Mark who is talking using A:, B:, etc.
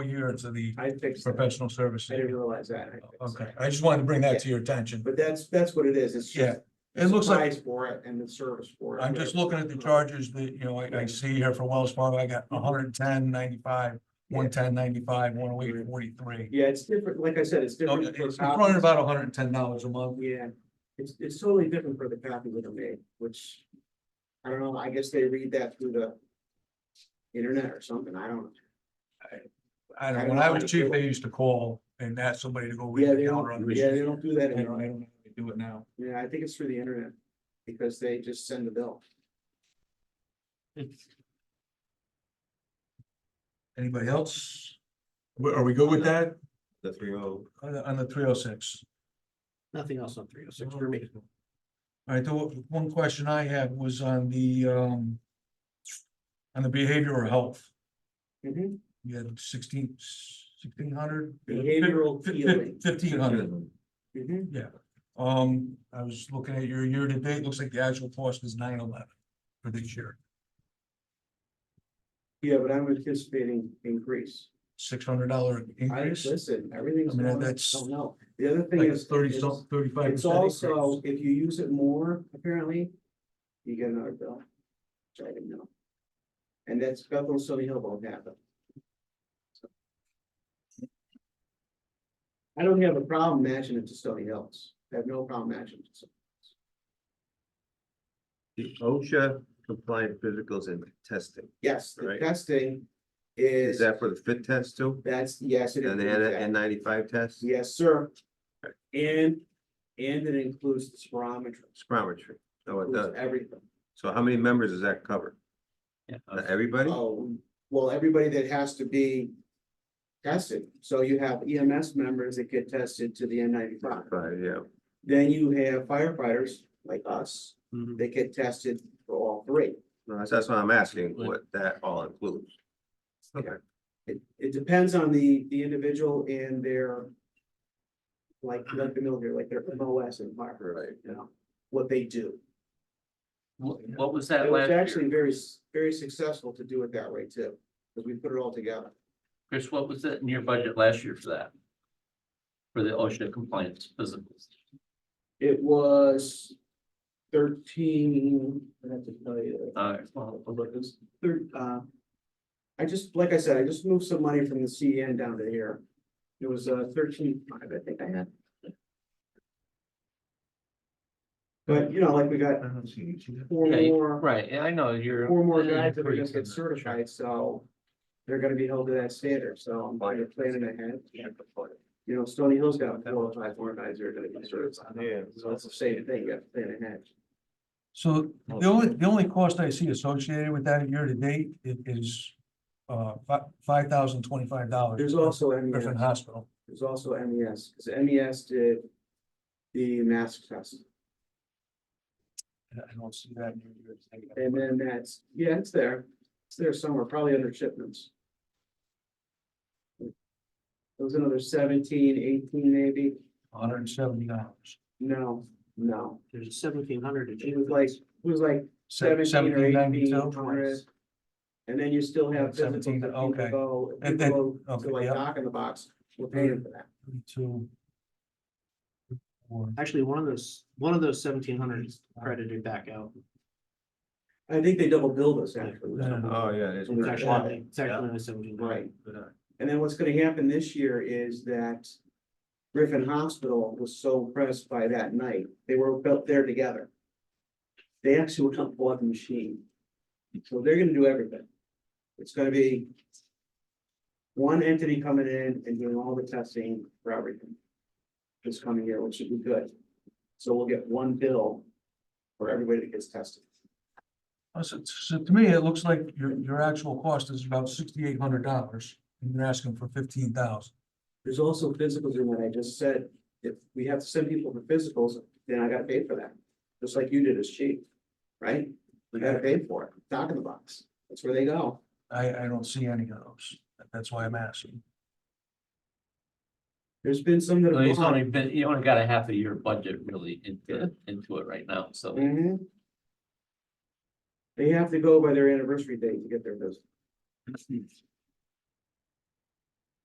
A: year into the
B: I fixed that.
A: professional
B: I
A: services.
B: didn't realize that. I fixed
A: Okay,
B: that.
A: I just wanted to bring that to your attention.
B: But that's, that's what it is. It's
A: Yeah,
B: just.
A: it looks like-
B: Price for it and the service for it.
A: I'm just looking at the charges that, you know, I, I see here for Wells Fargo, I
B: Mm-hmm.
A: got 110, 95, 110, 95, 108, 43.
B: Yeah, it's different. Like I said, it's
A: oh So
B: different.
A: It's
B: for
A: it's
B: copies.
A: running about hundred and ten dollars a month.
B: Yeah, it's, it's totally different for the copy that I made, which, I don't know, I guess they read that through the internet or something, I don't.
A: I don't, know. when I was chief, they used to call and ask somebody to go read
B: Yeah, they
A: the counter on
B: don't, yeah, they
A: the.
B: don't do that
A: I don't,
B: anymore.
A: I don't know if they do it now.
B: Yeah, I think it's through the internet, because they just send the bill.
A: Anybody else? Wh- Are we good with that
C: the three oh,
A: on the, on the three oh six?
B: Nothing else on three oh
A: All right, the one- one question I had was on the, um, on the behavioral health.
B: Mhm.
A: You had sixteen, sixteen hundred?
B: Behavioral healing.
A: Fifteen hundred.
B: Mhm.
A: Um, I was looking at your year to date, looks like the actual cost is nine eleven for this year,
B: Yeah, but I'm anticipating increase.
A: six hundred dollar
B: I,
A: increase.
B: listen, everything's
A: I mean,
B: going, up, I
A: that's
B: don't know, the other thing
A: Like
B: is.
A: thirty,
B: is-
A: some, thirty-five.
B: It's also, if you use it more, apparently, you get another bill. Which I didn't know. And that's Bethel, and Stony Hill both have them. So. I don't have a problem matching it to Stony Hills. I have no problem matching it. to-
C: the OSHA compliant physicals and testing.
B: Yes, the
C: Right.
B: testing
C: Is
B: is,
C: that for the fit test too?
B: that's, yes, it
C: And
B: is.
C: the N ninety-five test,
B: Yes, sir. And, and it includes the spirometry,
C: spirometry? Oh, it does.
B: includes everything.
C: So how many members does that cover? Not Everybody?
B: Oh, well, everybody that has to be tested, so you have EMS members that get tested to the N ninety-five.
C: Right, yeah.
B: Then you have firefighters like us,
C: Mm-hmm.
D: Mhm.
B: that get tested for all three.
C: No, that's, that's what I'm asking, what that all includes. Okay,
B: It, it depends on the, the individual and their like, like the military, like their MOS and fire,
C: right.
B: you know, what they do.
D: What, what was
B: It
D: that
B: was
D: last
B: actually
D: year?
B: very, s- very successful to do it that way too, because we put it all together.
D: Chris, what was that in your budget last year for that? For the OSHA compliance physicals?
B: It was thirteen, I have to tell you,
D: Uh,
B: well, but it was thir- uh. I just, like I said, I just moved some money from the CN down to here. It was uh thirteen five, I think I had. But you know, like we got four
D: Yeah, you-
B: more,
D: right, yeah, I know, you're.
B: four more guys that are gonna get certified, so. They're gonna be held to that standard, so I'm kind of planning ahead. You know, Stony Hill's got four or five more guys that are gonna get certified.
C: Yeah.
B: So it's the same thing, you have to plan ahead.
A: So the only, the only cost I see associated with that year to date i- is, uh, fi- five thousand twenty-five dollars.
B: There's also MES,
A: Griffin Hospital.
B: there's also E MES, because MES did the mask test.
A: I don't see that. in your year to date.
B: And then that's, yeah, it's there, it's there somewhere, probably under shipments. It was another 17, 18, maybe,
A: hundred and seventy dollars.
B: no, no,
D: There's seventeen hundred.
B: it was like, it was like seventeen or
A: Seventeen
B: eighteen
A: ninety-two.
B: hundred. And then you still have. physical that
A: 17,
B: people
A: okay.
B: go-
A: And
B: people go
A: okay,
B: To like
A: yeah.
B: knock in the box, we're paying for that.
A: Thirty-two. Four.
E: Actually, one of those, one of those seventeen hundred is credited back out.
B: I think they double billed us actually.
A: Yeah.
D: Uh,
C: Oh, yeah. it's-
E: It's
B: Yeah.
E: actually, it's actually only seventeen hundred.
B: Right. And then what's gonna happen this year is that Griffin Hospital was so impressed by that night, they were built there together. They actually went out and bought the machine. So they're gonna do everything. It's gonna be one entity coming in and doing all the testing for everything this coming year, which should be good. So we'll get one bill for everybody that gets tested.
A: Uh, So, so to me, it looks like your, your actual cost is about sixty-eight hundred dollars and you're asking for fifteen thousand.
B: There's also physicals in what I just said. If we have to send people for physicals, then I gotta pay for that. Just like you did as chief, right? We gotta pay for it. Dock in the box. That's where they go.
A: I, I don't see any of those. That's why I'm asking.
B: There's been some that have
D: He's
B: gone.
D: only been, you only got a half a year budget really into, into it right now, so.
B: Mhm. They have to go by their anniversary date to get their business.